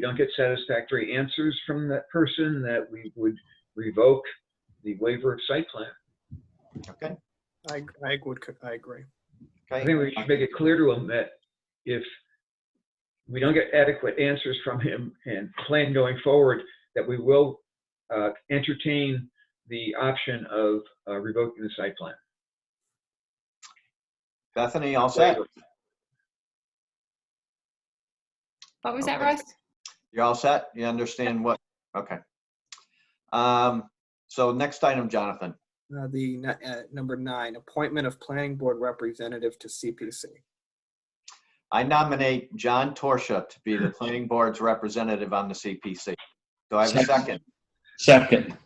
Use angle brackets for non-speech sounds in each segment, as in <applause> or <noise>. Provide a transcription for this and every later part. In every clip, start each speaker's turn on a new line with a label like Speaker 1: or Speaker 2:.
Speaker 1: don't get satisfactory answers from that person, that we would revoke the waiver of site plan.
Speaker 2: Okay,
Speaker 3: I, I would, co- I agree.
Speaker 1: I
Speaker 2: okay.
Speaker 1: think we should make it clear to him that if we don't get adequate answers from him and plan going forward, that we will uh, entertain the option of uh, revoking the site plan.
Speaker 2: Bethany, all set?
Speaker 4: What was that,
Speaker 2: Okay.
Speaker 4: Russ?
Speaker 2: You're all set? You understand what? Okay. Um, so next item, Jonathan.
Speaker 3: Uh, The n- uh, number nine, appointment of planning board representative to CPC.
Speaker 2: I nominate John Torsia to be the planning board's representative on the CPC. Do I have a second?
Speaker 5: Second.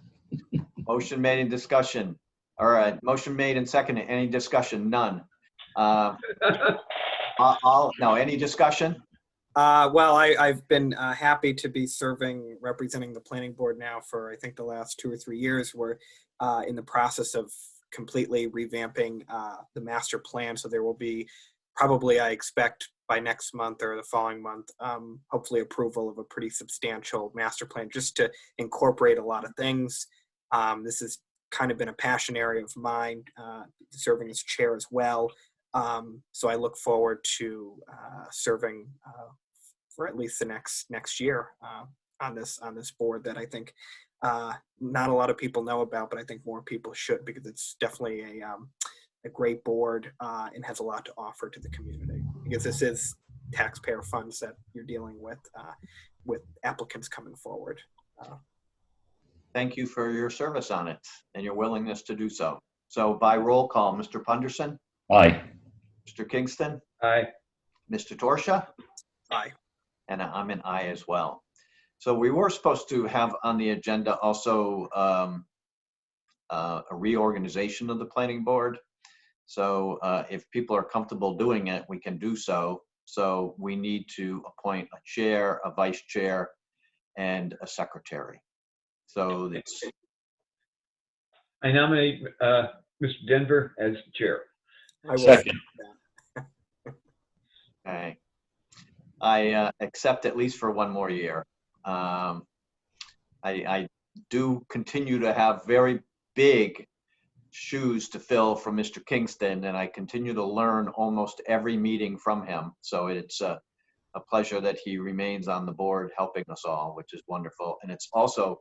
Speaker 2: Motion made and discussion. All right, motion made and seconded. Any discussion? None. Uh, all- all, no, any discussion?
Speaker 3: Uh, Well, I, I've been uh, happy to be serving, representing the planning board now for, I think, the last two or three years. We're uh, in the process of completely revamping uh, the master plan, so there will be probably, I expect, by next month or the following month, um, hopefully approval of a pretty substantial master plan, just to incorporate a lot of things. Um, This has kind of been a passion area of mine, uh, serving as chair as well. Um, So I look forward to uh, serving uh, for at least the next next year uh, on this on this board that I think uh, not a lot of people know about, but I think more people should because it's definitely a um, a great board uh, and has a lot to offer to the community because this is taxpayer funds that you're dealing with uh, with applicants coming forward.
Speaker 2: Thank you for your service on it and your willingness to do so. So by roll call, Mr. Punderson,
Speaker 5: Aye.
Speaker 2: Mr. Kingston,
Speaker 1: Aye.
Speaker 2: Mr. Torsia?
Speaker 3: Aye.
Speaker 2: And I'm an aye as well. So we were supposed to have on the agenda also um, uh, a reorganization of the planning board. So uh, if people are comfortable doing it, we can do so. So we need to appoint a chair, a vice chair, and a secretary. So it's,
Speaker 1: I nominate uh, Mr. Denver as chair.
Speaker 3: I will-
Speaker 5: Second.
Speaker 2: okay. I uh, accept at least for one more year. Um, I, I do continue to have very big shoes to fill from Mr. Kingston, and I continue to learn almost every meeting from him. So it's a, a pleasure that he remains on the board helping us all, which is wonderful. And it's also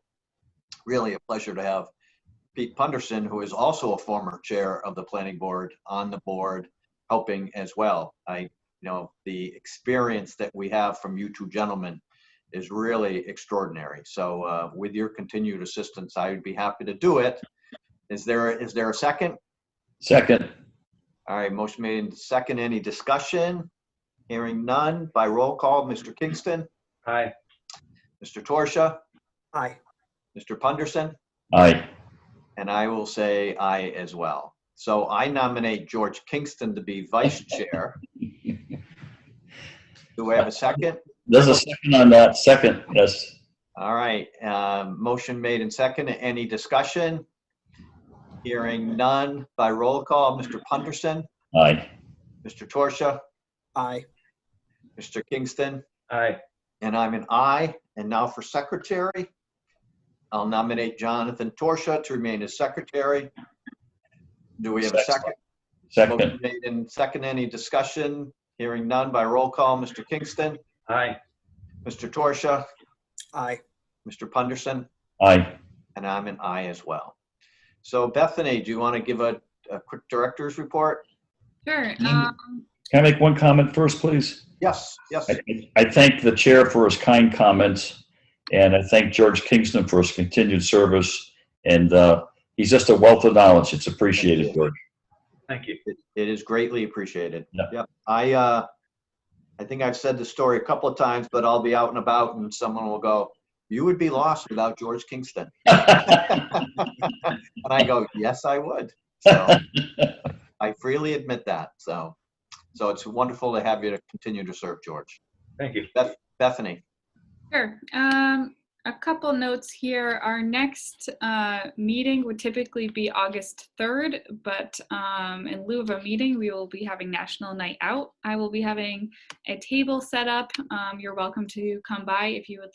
Speaker 2: really a pleasure to have Pete Punderson, who is also a former chair of the planning board, on the board helping as well. I, you know, the experience that we have from you two gentlemen is really extraordinary. So uh, with your continued assistance, I would be happy to do it. Is there, is there a second?
Speaker 5: Second.
Speaker 2: All right, motion made and second. Any discussion? Hearing none by roll call. Mr. Kingston,
Speaker 1: Aye.
Speaker 2: Mr. Torsia,
Speaker 3: Aye.
Speaker 2: Mr. Punderson,
Speaker 5: Aye.
Speaker 2: and I will say aye as well. So I nominate George Kingston to be vice chair. Do I have a second?
Speaker 5: There's a second on that. Second, yes.
Speaker 2: All right, um, motion made and second. Any discussion? Hearing none by roll call. Mr. Punderson,
Speaker 5: Aye.
Speaker 2: Mr. Torsia,
Speaker 3: Aye.
Speaker 2: Mr. Kingston,
Speaker 1: Aye.
Speaker 2: and I'm an aye. And now for secretary, I'll nominate Jonathan Torsia to remain as secretary. Do we have a second?
Speaker 5: Second.
Speaker 2: Motion made and second. Any discussion? Hearing none by roll call. Mr. Kingston,
Speaker 1: Aye.
Speaker 2: Mr. Torsia,
Speaker 3: Aye.
Speaker 2: Mr. Punderson,
Speaker 5: Aye.
Speaker 2: And I'm an I as well. So Bethany, do you want to give a, a quick director's report?
Speaker 4: Sure.
Speaker 5: Mm.
Speaker 4: Um,
Speaker 5: Can I make one comment first, please?
Speaker 2: Yes, yes.
Speaker 5: I, I thank the chair for his kind comments, and I thank George Kingston for his continued service. And uh, he's just a wealth of knowledge. It's appreciated, George.
Speaker 1: Thank you.
Speaker 2: It it is greatly appreciated.
Speaker 5: Yeah.
Speaker 2: Yep. I, uh, I think I've said the story a couple of times, but I'll be out and about and someone will go, you would be lost without George
Speaker 5: <laughs>
Speaker 2: Kingston. And I go, yes, I would. So
Speaker 5: <laughs>
Speaker 2: I freely admit that. So, so it's wonderful to have you to continue to serve, George.
Speaker 1: Thank you.
Speaker 2: Bethany,
Speaker 4: sure. Um, a couple notes here. Our next uh, meeting would typically be August 3rd, but um, in lieu of a meeting, we will be having National Night Out. I will be having a table set up. Um, You're welcome to come by if you would